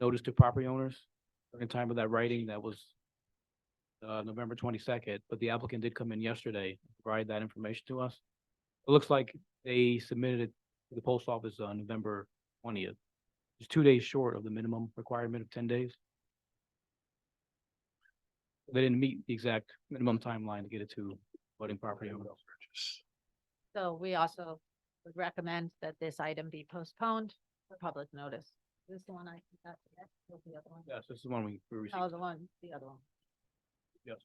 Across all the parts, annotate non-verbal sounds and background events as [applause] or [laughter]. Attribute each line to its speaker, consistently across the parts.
Speaker 1: notice to property owners during the time of that writing that was uh, November twenty-second, but the applicant did come in yesterday, provide that information to us. It looks like they submitted it to the post office on November twentieth. It's two days short of the minimum requirement of ten days. They didn't meet the exact minimum timeline to get it to voting property owners.
Speaker 2: So we also would recommend that this item be postponed for public notice. This is the one I got today, or the other one?
Speaker 1: Yes, this is the one we we received.
Speaker 2: Oh, the one, the other one.
Speaker 1: Yes.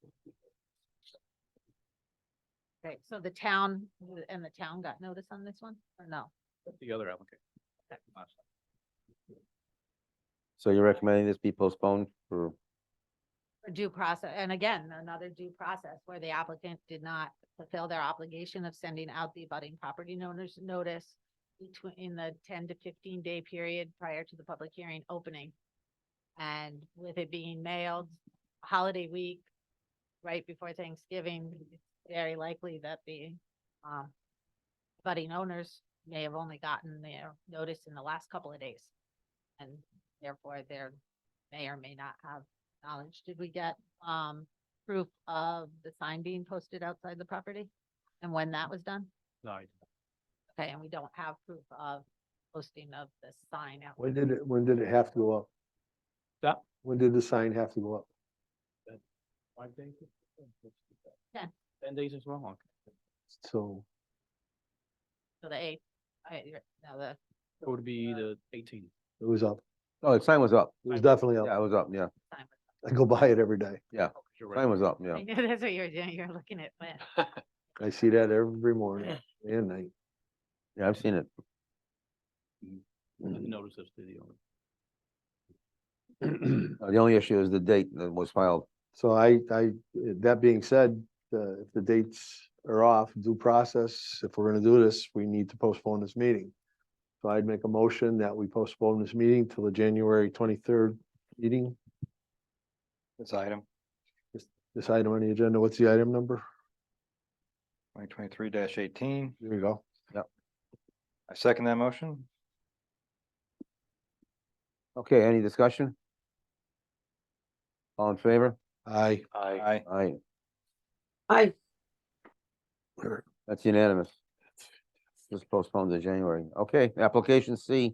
Speaker 2: Great. So the town, w- and the town got notice on this one, or no?
Speaker 1: The other applicant.
Speaker 3: So you're recommending this be postponed for,
Speaker 2: For due process, and again, another due process where the applicant did not fulfill their obligation of sending out the abutting property owners notice between, in the ten to fifteen day period prior to the public hearing opening. And with it being mailed holiday week, right before Thanksgiving, it's very likely that the, um, abutting owners may have only gotten their notice in the last couple of days. And therefore, there may or may not have knowledge, did we get, um, proof of the sign being posted outside the property? And when that was done?
Speaker 1: No, I-
Speaker 2: Okay, and we don't have proof of posting of the sign out.
Speaker 4: When did it, when did it have to go up?
Speaker 1: That-
Speaker 4: When did the sign have to go up?
Speaker 1: Five days?
Speaker 2: Ten.
Speaker 1: Ten days is wrong.
Speaker 4: So,
Speaker 2: So the eighth, I, you're- no, the,
Speaker 1: It would be the eighteen.
Speaker 4: it was up.
Speaker 3: oh, the sign was up.
Speaker 4: It was definitely
Speaker 3: Yeah,
Speaker 4: up.
Speaker 3: it was up, yeah.
Speaker 2: sign was-
Speaker 4: I go [laughs] by it every day.
Speaker 1: You're
Speaker 3: Sign
Speaker 1: right.
Speaker 3: was up, yeah.
Speaker 2: I knew [laughs] that's what you were doing, you're looking at when.
Speaker 4: I see that every morning and night.
Speaker 3: Yeah, I've seen it. [clears throat]
Speaker 1: And the Notice of the owner.
Speaker 3: Uh, The only issue is the date that was filed.
Speaker 4: So I, I, that being said, uh, if the dates are off, due process, if we're gonna do this, we need to postpone this meeting. So I'd make a motion that we postpone this meeting till the January twenty-third meeting.
Speaker 5: This item,
Speaker 4: This item on the agenda, what's the item number?
Speaker 5: twenty twenty-three eighteen,
Speaker 4: There you go.
Speaker 5: I second that motion.
Speaker 3: Okay, any discussion? All in favor?
Speaker 4: Aye.
Speaker 5: Aye.
Speaker 3: Aye,
Speaker 6: Aye.
Speaker 3: that's unanimous. Just postponed to January. Okay, application C.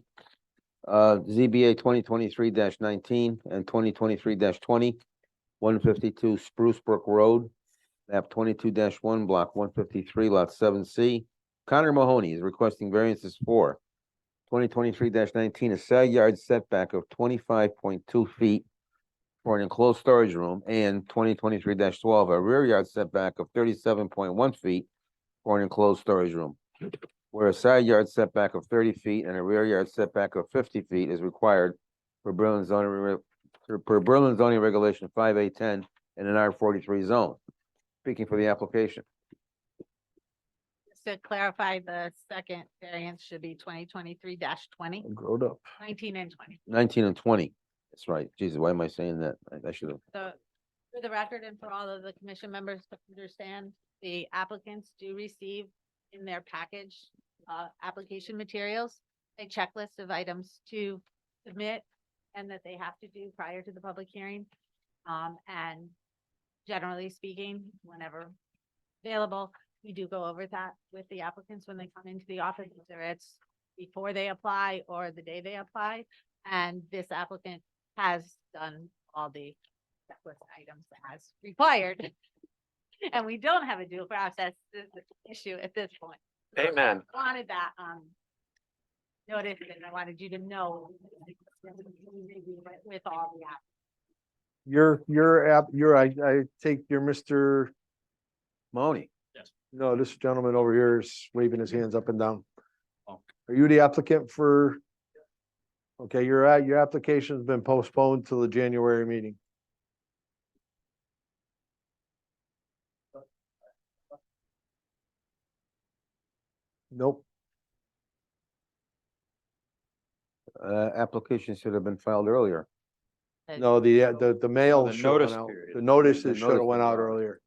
Speaker 3: Uh, ZBA twenty twenty-three nineteen and twenty twenty-three twenty. One fifty-two Spruce Brook Road. Map twenty-two one, block one fifty-three, lot seven C. Connor Mahoney is requesting variances for twenty twenty-three nineteen, a side yard setback of twenty-five point two feet for an enclosed storage room and twenty twenty-three twelve, a rear yard setback of thirty-seven point one feet for an enclosed storage room. Where a side yard setback of thirty feet and a rear yard setback of fifty feet is required for Berlin zoning, re- per Berlin zoning regulation five A ten in an R forty-three zone. Speaking for the application.
Speaker 2: Just to clarify, the second variance should be twenty twenty-three 20 19
Speaker 4: Growed up.
Speaker 2: and twenty.
Speaker 3: Nineteen and twenty. That's right. Jesus, why am I saying that? I- I should have.
Speaker 2: So for the record and for all of the commission members to understand, the applicants do receive in their package, uh, application materials, a checklist of items to submit and that they have to do prior to the public hearing. Um, and generally speaking, whenever available, we do go over that with the applicants when they come into the office, whether it's before they apply or the day they apply. And this applicant has done all the checklist items as required. [laughs] And we don't have a dual process is the issue at this point. Amen. Wanted that, um, notice and I wanted you to know with all the app.
Speaker 4: You're, you're, ab- you're, I, I take your Mr.
Speaker 3: Mahoney,
Speaker 4: No, this gentleman over here is waving his hands up and down.
Speaker 1: Oh.
Speaker 4: Are you the applicant for? Okay, your, a- your application's been postponed till the January meeting. Nope,
Speaker 3: uh, application should have been filed earlier.
Speaker 4: no, the, uh, the, the mail
Speaker 5: the
Speaker 4: should have
Speaker 5: notice
Speaker 4: Oh, went out.
Speaker 5: period.
Speaker 4: The notices
Speaker 3: The
Speaker 4: should have
Speaker 3: notice
Speaker 4: went
Speaker 3: was
Speaker 4: out
Speaker 3: out.
Speaker 4: earlier.